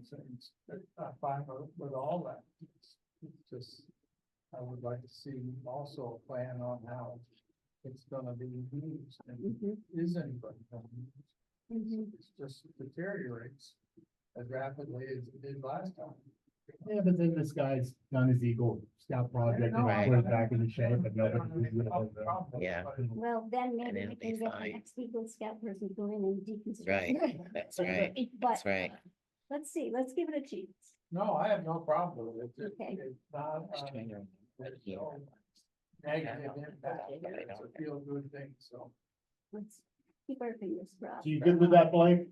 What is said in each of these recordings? it's- I find with- with all that, it's it's just, I would like to see also a plan on how it's gonna be used and Mhm, is anybody gonna use it? mhm. It's just deteriorates as rapidly as it did last time. Yeah, but then this guy's done his Eagle Scout project No, I- and put it back in shape, I but nobody. don't really have a problem with it, Yeah. but Well, then maybe then we it'll be can get the fine. next Eagle Scout person to go in and deconstruct. Right, it. that's right, um, But that's right. let's see, let's give it a chance. No, I have no problem with it. It- Okay. It's not, Just um, trying to remember there's here. no negative impact. But I It's a don't- feel good thing, so. Let's keep our fingers crossed. So you good with that, Blake?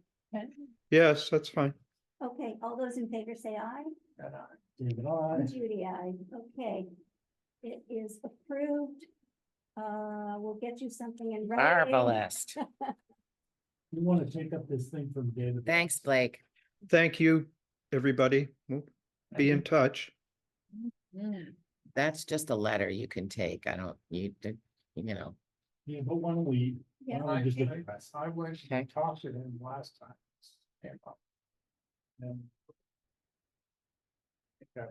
Yes, that's fine. Okay, all those in favor say aye. And I, David, aye. Judy, aye. Okay. It is approved. Uh, we'll get you something in writing. Marvelous. You wanna take up this thing from David? Thanks, Blake. Thank you, everybody. We'll Be in touch. That's just a letter you can take. I don't, you, you know, Yeah, but one week. Yeah. Why don't we just I- look I- at this? I went Okay. and talked to him last time. came up. And. Okay.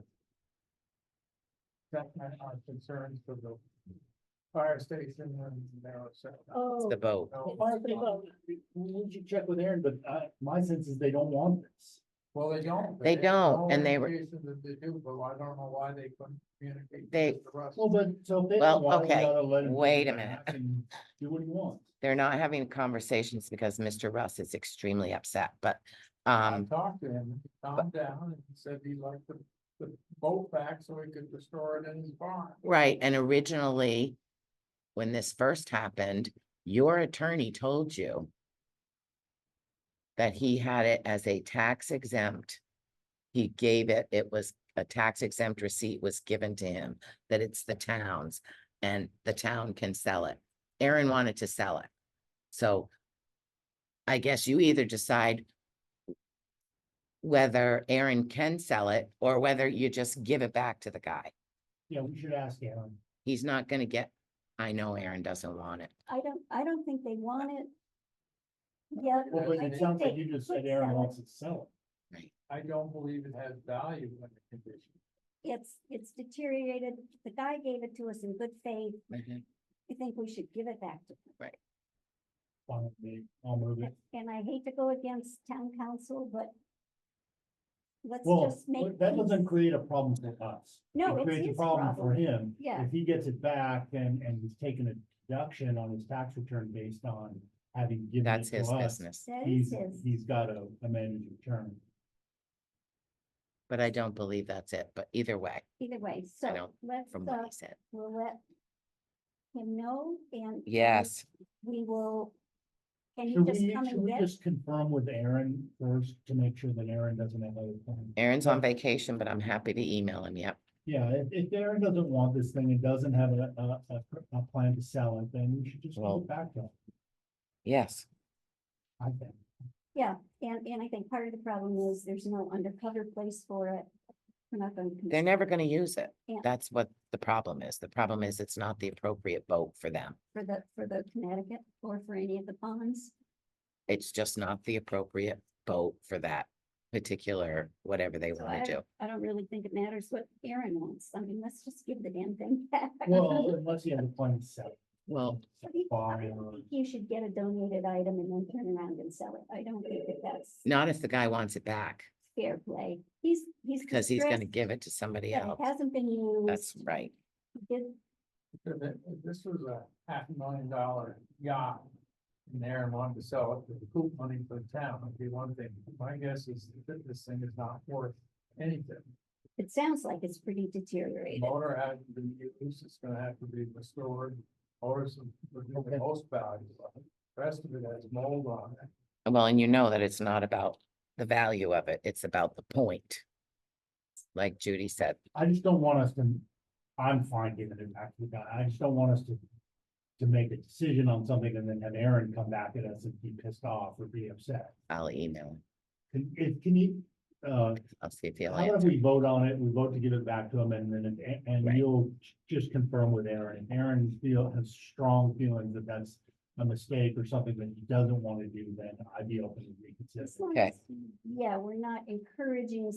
That my our concerns for the fire station and there, so. Oh, the vote. No, Why don't they go? Would you check with Aaron, but uh, my sense is they don't want this. Well, they don't. but They there's don't, no and they were- indication that They do, but I don't know why they couldn't communicate. They- with the rest. Well, but so if they Well, don't want it, we okay, gotta let him. wait a do minute. that and Do what he wants. They're not having conversations because Mr. Russ is extremely upset, but, I um, talked to him, he calmed down and he said he liked the, the boat back so he could restore it in his barn. right, and originally, when this first happened, your attorney told you that he had it as a tax exempt. He gave it, it was a tax exempt receipt was given to him, that it's the town's and the town can sell it. Aaron wanted to sell it. So I guess you either decide whether Aaron can sell it or whether you just give it back to the guy. Yeah, we should ask Aaron. He's not gonna get, I know Aaron doesn't want it. I don't, I don't think they want it. Yeah. Well, but I it think sounds like they you just could said sell Aaron it. wants it sold. I don't believe it has value in the condition. It's, it's deteriorated. The guy gave it to us in good faith. I think we should give it back to him. Fine with me. I'll move it. And I hate to go against town council, but let's Well, just make. that doesn't peace. create a problem for us. No, It it's creates a his problem for problem. him. Yeah. If he gets it back and, and he's taking a deduction on his tax return based on having given That's it to his us. business, That is He's, his. he's got to amend his return. but I don't believe that's it. But either way, Either way, so know, let's, from uh, what he said. we'll let him know and. and Yes, We will. Can you Should we, just come should and we get? just confirm with Aaron first to make sure that Aaron doesn't have other plans? Aaron's on vacation, but I'm happy to email him. Yep. Yeah, if, if Aaron doesn't want this thing and doesn't have a, a, a, a plan to sell it, then we should just Well- give it back to him, Yes, I think. Yeah, and, and I think part of the problem is there's no undercover place for it. We're not going to. they're never gonna use it. Yeah. That's what the problem is. The problem is it's not the appropriate vote for them. For the, for the Connecticut or for any of the ponds. It's just not the appropriate vote for that particular, whatever they So wanna do. I don't really think it matters what Aaron wants. I mean, let's just give the damn thing back. Well, unless he has a plan to sell. it. Well, But he- I Buy don't or- think You should get a donated item and then turn around and sell it. I don't think that that's not if the guy wants it back, fair play. He's, he's. because he's gonna distressed give it to somebody that it else. Hasn't been used. That's right. Did, Because it- This was a half a million dollar yacht. And Aaron wanted to sell it for the cool money for the town, would be one thing. My guess is that this thing is not worth anything. it sounds like it's pretty The deteriorated. Motor hasn't been used, it's gonna have to be restored. Motors would be Okay. the most valuable. The Rest of it has mold on it. Well, and you know that it's not about the value of it, it's about the point. Like Judy said, I just don't want us to, I'm fine giving it back to the guy, I just don't want us to. To make a decision on something and then have Aaron come back at us and be pissed off or be upset. I'll email him. Can, if, can you, uh, I'll see if he'll how about if answer. we vote on it, we vote to give it back to him and then, if- and Right. you'll just confirm with Aaron. If Aaron feel, has strong feelings that that's a mistake or something that he doesn't want to do, then I'd be open to reconsider. As long Okay. as, Yeah, we're not encouraging